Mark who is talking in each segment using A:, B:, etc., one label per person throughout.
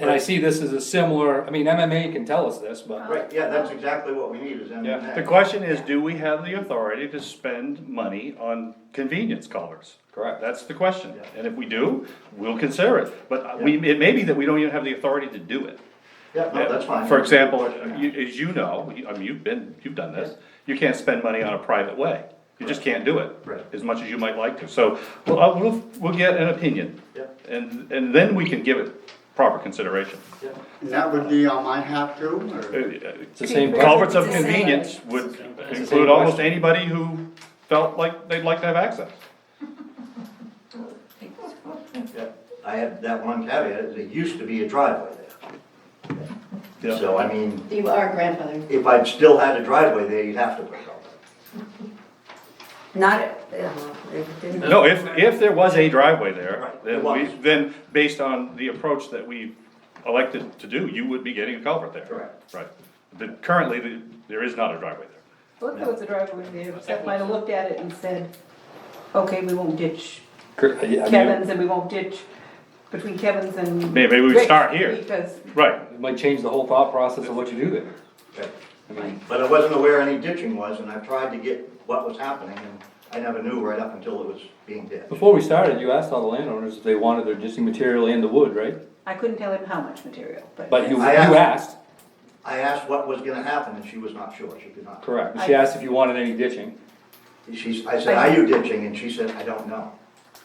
A: And I see this as a similar, I mean, MMA can tell us this, but,
B: Right, yeah, that's exactly what we need is M and
C: Yeah, the
B: A.
C: question is, do we have the authority to spend money on convenience collars?
A: Correct.
C: That's the question, and if we do, we'll consider it, but uh, we, it may be that we don't even have the authority to do it.
B: Yeah, no, that's fine.
C: For example,
B: Yeah.
C: you, as you know, you- I mean, you've been, you've done this, you can't spend money on a private way, you just can't do it.
B: Correct.
C: As much as you might like to, so, we'll, uh, we'll, we'll get an opinion.
B: Yep.
C: And, and then we can give it proper consideration. Uh,
B: Yeah.
D: And that would be on my half too, or?
A: It's the same
C: Culverts of
E: It's the same.
C: convenience would
A: same
C: include almost
A: question.
C: anybody who felt like they'd like to have access.
B: Yeah. I had that one caveat, is it used to be a driveway there.
C: Yeah.
B: So I mean,
E: You are grandfather.
B: if I'd still had a driveway there, you'd have to put it on.
E: Not, uh, it didn't.
C: No, if, if there was a driveway there,
B: Right, there
C: then we,
B: was.
C: then based on the approach that we elected to do, you would be getting a culvert there.
B: Correct.
C: Right, but currently, the- there is not a driveway there.
F: Well, if there was a driveway there, Seth might have looked at it and said, okay, we won't ditch Kevin's and we won't ditch between Kevin's and.
C: May- maybe we
F: Rick's
C: start here.
F: Because,
C: Right,
A: It might change the whole thought process of what you do there.
B: Right.
A: I mean,
B: But I wasn't aware any ditching was, and I tried to get what was happening, and I never knew right up until it was being ditched.
A: Before we started, you asked all the landowners if they wanted their existing material and the wood, right?
F: I couldn't tell him how much material, but.
A: But you, you
B: I asked.
A: asked,
B: I asked what was gonna happen, and she was not sure, she could not.
A: correct, she asked if you wanted any ditching,
B: She's, I said, are you ditching? And she said, I don't know.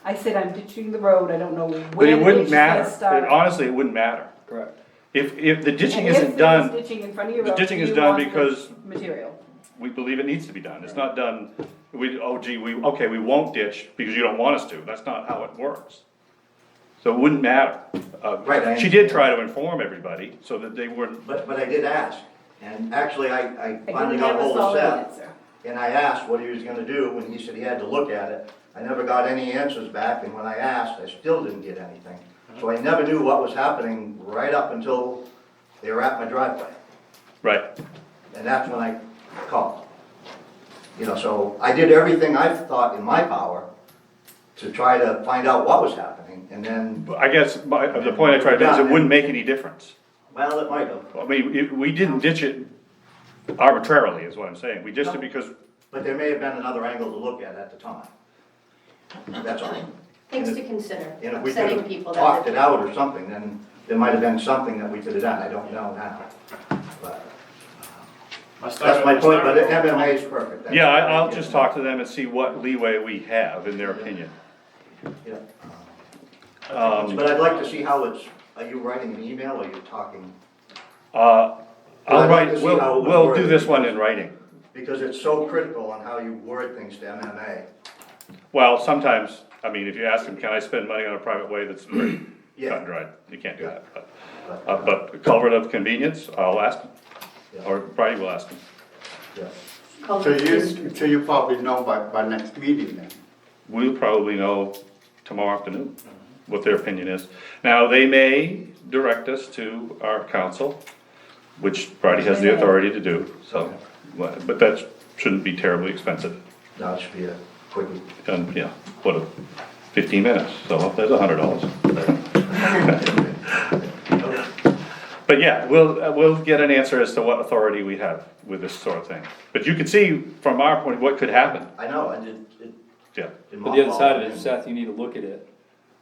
F: I said, I'm ditching the road, I don't know
C: but
F: where
C: it
F: the ditch
C: wouldn't
F: is
C: matter,
F: gonna
C: It-
F: start.
C: honestly, it wouldn't matter.
A: correct.
C: If, if the ditching
F: And
C: isn't
F: if there is
C: done,
F: ditching in front of your
C: the
F: road,
C: ditching is
F: you
C: done
F: want the
C: because-
F: Material.
C: we believe it needs to be done, it's not done, we, oh gee, we, okay, we won't ditch because you don't want us to, that's not how it works. So it wouldn't matter. Uh,
B: Right, I
C: She did try to inform everybody so that they weren't,
B: But, but I did ask, and actually, I, I
F: I
B: finally
F: didn't
B: got
F: have a
B: hold of
F: solid
B: Seth.
F: answer.
B: And I asked what he was gonna do, and he said he had to look at it. I never got any answers back, and when I asked, I still didn't get anything. So I never knew what was happening right up until they were at my driveway,
C: right,
B: and that's when I called. You know, so I did everything I thought in my power to try to find out what was happening, and then,
C: But I guess my, uh, the point I tried to make is it wouldn't make any difference.
B: well, it might have.
C: I mean, it- we didn't ditch it arbitrarily, is what I'm saying, we ditched it because,
B: But there may have been another angle to look at at the time. That's all.
G: Things to consider,
B: And if we could
G: upsetting people
B: have
G: that
B: talked
G: live.
B: it out or something, then there might have been something that we could have done, I don't know now. But uh, That's my point, but MMA is perfect. That's-
C: yeah, I, I'll just talk to them and see what leeway we have in their opinion.
B: Yeah.
C: Um,
B: But I'd like to see how it's, are you writing an email or you're talking?
C: uh, I'll
B: I'd like to
C: write,
B: see how it
C: we'll,
B: was
C: we'll do
B: worded.
C: this one in writing.
B: Because it's so critical on how you word things to MMA.
C: Well, sometimes, I mean, if you ask them, can I spend money on a private way that's pretty cut
B: Yeah.
C: and dried, you can't do that, but,
B: but,
C: uh, but culvert of convenience, I'll ask them,
B: yeah,
C: or Brian will ask them.
B: yeah.
G: Called
D: So
G: history.
D: you, so you probably know by, by next meeting then?
C: We'll probably know tomorrow afternoon what their opinion is. Now, they may direct us to our council, which Bridie has the authority to do, so, but but that shouldn't be terribly expensive.
B: No, it should be a quick,
C: And, yeah, what, a- fifteen minutes, so that's a hundred dollars. But yeah, we'll, uh, we'll get an answer as to what authority we have with this sort of thing. But you can see from our point, what could happen,
B: I know, I did, it.
C: yeah.
B: did
A: But the other
B: mothball
A: side of it,
B: and-
A: Seth, you need to look at it,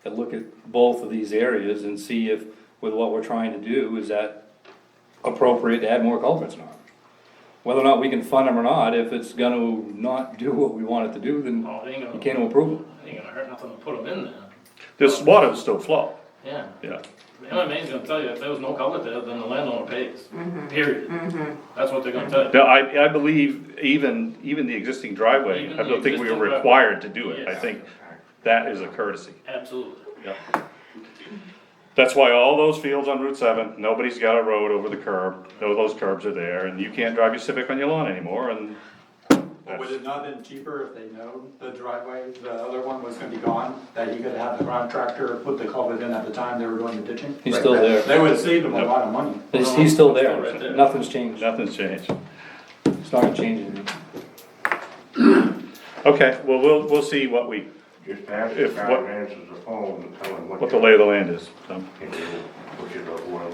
A: and look at both of these areas and see if, with what we're trying to do, is that appropriate to add more culverts or not? Whether or not we can fund them or not, if it's gonna not do what we want it to do, then
H: Oh, it ain't
A: you
H: gonna,
A: can't approve them.
H: it ain't gonna hurt nothing to put them in there,
C: This water will still flow,
H: yeah.
C: yeah.
H: The MMA's gonna tell you, if there was no culvert there, then the landowner pays, period. That's what they're gonna tell you.
C: Now, I, I believe even, even the existing driveway, I
H: Even the
C: don't think we
H: existing
C: were
H: driveway.
C: required to do it. I
H: Yes.
C: think that is a courtesy.
H: Absolutely.
C: Yeah. That's why all those fields on Route seven, nobody's got a road over the curb, no, those curbs are there, and you can't drive your Civic on your lawn anymore, and.
I: Would it not have been cheaper if they know the driveway, the other one was gonna be gone, that you could have the contractor put the culvert in at the time they were doing the ditching?
A: He's still there,
I: They would save them a lot of money.
A: he's, he's still
H: Right
A: there,
H: there.
A: nothing's changed,
C: Nothing's changed.
A: it's not gonna change anything.
C: Okay, well, we'll, we'll see what we
G: Just ask the
C: If
G: guy
C: what-
G: who answers the phone and tell him what.
C: Um, what the lay of the land is, so.
G: Which is a